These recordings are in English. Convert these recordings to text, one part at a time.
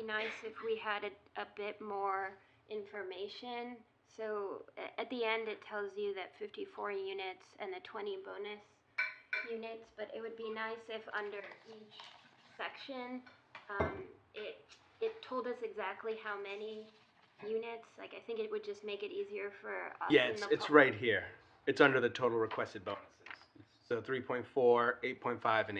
nice if we had a, a bit more information. So a- at the end, it tells you that fifty-four units and the twenty bonus units, but it would be nice if under each section, um, it, it told us exactly how many units, like, I think it would just make it easier for us Yeah, and it's, the it's pub- right here. It's under the total requested bonuses. So 3.4, 8.5, and 8.5.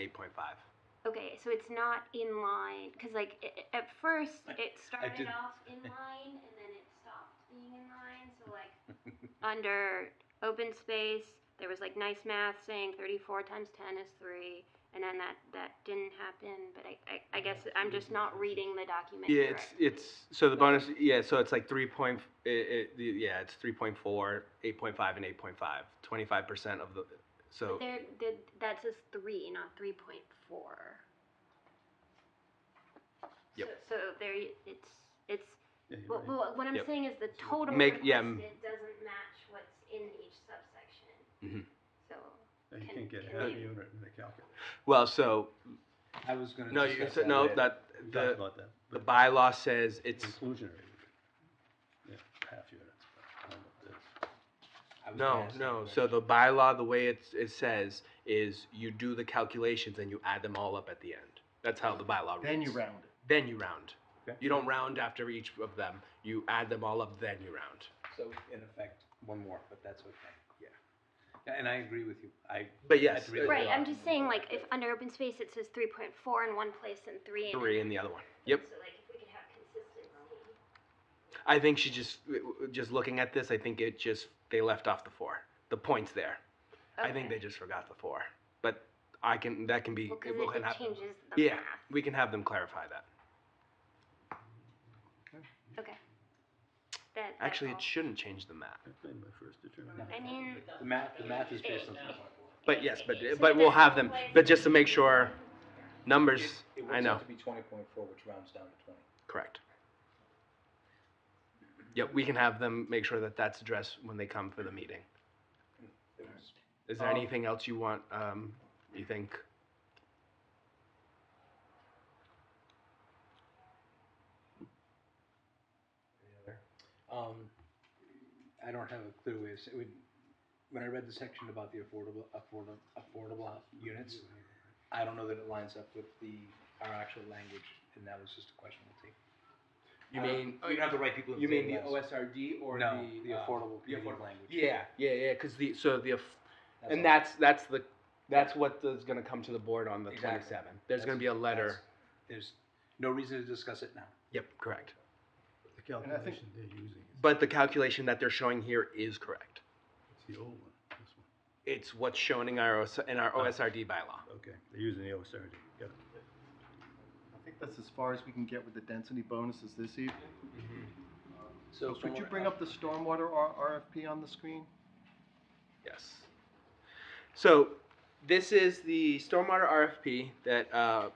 Okay, so it's not in line, because like i- i- at first it started did- off in line and then it stopped being in line. So like under open space, there was like nice math saying 34 times 10 is 3, and then that, that didn't happen. But I, I, I guess I'm just not reading the document. Yeah, it's, correctly. it's, so the bonus, yeah, so it's like 3. Point, it, it, yeah, it's 3.4, 8.5, and 8.5. 25% of the, so, There, there, that says 3, not 3.4. Yep. So, so there, y- it's, it's Yeah, you're Well, right. well, what I'm Yep. saying is the total Make- requested yeah, m- doesn't match what's in each subsection. Mhm. So, Yeah, You can- can't get can half a you- unit in the calculator. well, so, I was gonna. no, you, discuss said no, later. that, We talked the, about that. the but bylaw says it's, Inclusionary. Yeah, half units. but I don't know if that's- I was gonna no, ask that no, so question. the bylaw, the way it's, it says is you do the calculations and you add them all up at the end. That's how the bylaw reads. Then you round it. then you round. Okay. You don't round after each of them. You add them all up, then you round. So in effect, one more, but that's okay. Yeah. Yeah, and I agree with you. I. But yes, uh, I'd really right, like- I'm just saying like if under open space it says three point four in one place and three in. three in the other one. Yep. So like if we could have consistency. I think she just uh, just looking at this. I think it just they left off the four. The points there. I think they Okay. just forgot the four. But I can that can be. Well, cause we it- can it have- changes the yeah, math. we can have them clarify that. Okay. That, that's Actually, all. it shouldn't change the math. I made my first I determination. mean. The math, the math is based on. it- But yes, but it- so but it we'll doesn't have them. play- But just to make sure, numbers. It it I works know. out to be twenty point four, which rounds down to twenty. Correct. Yep, we can have them make sure that that's addressed when they come for the meeting. It was- Is there Um, anything else you want, um, you think? Um, I don't have a clue, is, it would, when I read the section about the affordable, affordable, affordable hou- units, I don't know that it lines up with the, our actual language, and that was just a question we'll take. Oh, You I don't- mean- We don't Oh, have the right people in the same desk. OSRD No, the affordable the community affordable- language. Yeah, yeah, yeah, cause the, so the, aff- and all. that's, that's the, that's what is gonna come to the board on the Exactly. twenty-seventh. There's That's- gonna be a letter. that's- There's no reason to discuss it now. Yep, correct. The calculation they're using is, But the calculation that they're showing here is correct. it's the old one, this one. It's what's shown in our, OS in our Oh. OSRD bylaw. Okay, they're using the OSRD, got it. I think that's as far as we can get with the density bonuses this evening. So Could you bring up the stormwater R- RFP on the screen? Yes. So this is the stormwater RFP that, uh,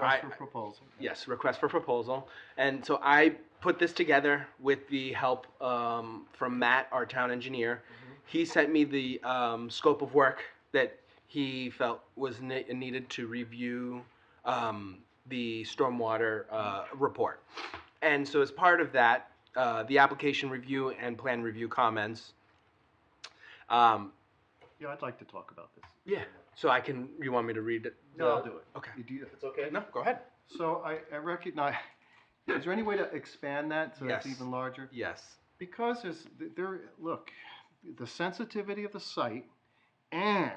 I- Request for proposal. yes, request for proposal. And so I put this together with the help um, from Matt, our town engineer. He sent me the um, scope of work that he felt was ne- needed to review um, the stormwater uh, report. And so as part of that, uh, the application review and plan review comments. Um, Yeah, I'd like to talk about this. Yeah. So I can. You want me to read it? No, I'll do it. Okay. You do that. It's okay. No, go ahead. So I, I recognize, is there any way to expand that so Yes. it's even larger? Yes. Because there's, there, look, the sensitivity of the site and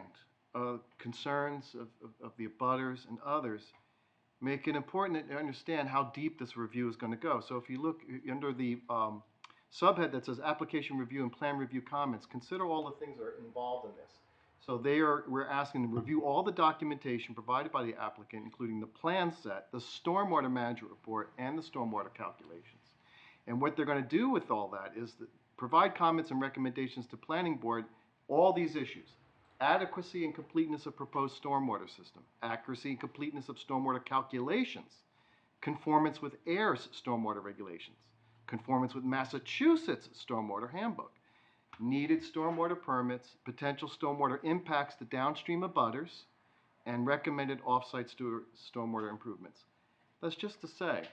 uh, concerns of, of, of the abutters and others make it important to understand how deep this review is going to go. So if you look uh, under the um, subhead that says application review and plan review comments, consider all the things that are involved in this. So they are, we're asking them to review all the documentation provided by the applicant, including the plan set, the stormwater management report, and the stormwater calculations. And what they're gonna do with all that is that provide comments and recommendations to planning board, all these issues. Adequacy and completeness of proposed stormwater system, accuracy and completeness of stormwater calculations, conformance with AIR's stormwater regulations, conformance with Massachusetts stormwater handbook, needed stormwater permits, potential stormwater impacts to downstream abutters, and recommended off-site stu- stormwater improvements. That's just to say,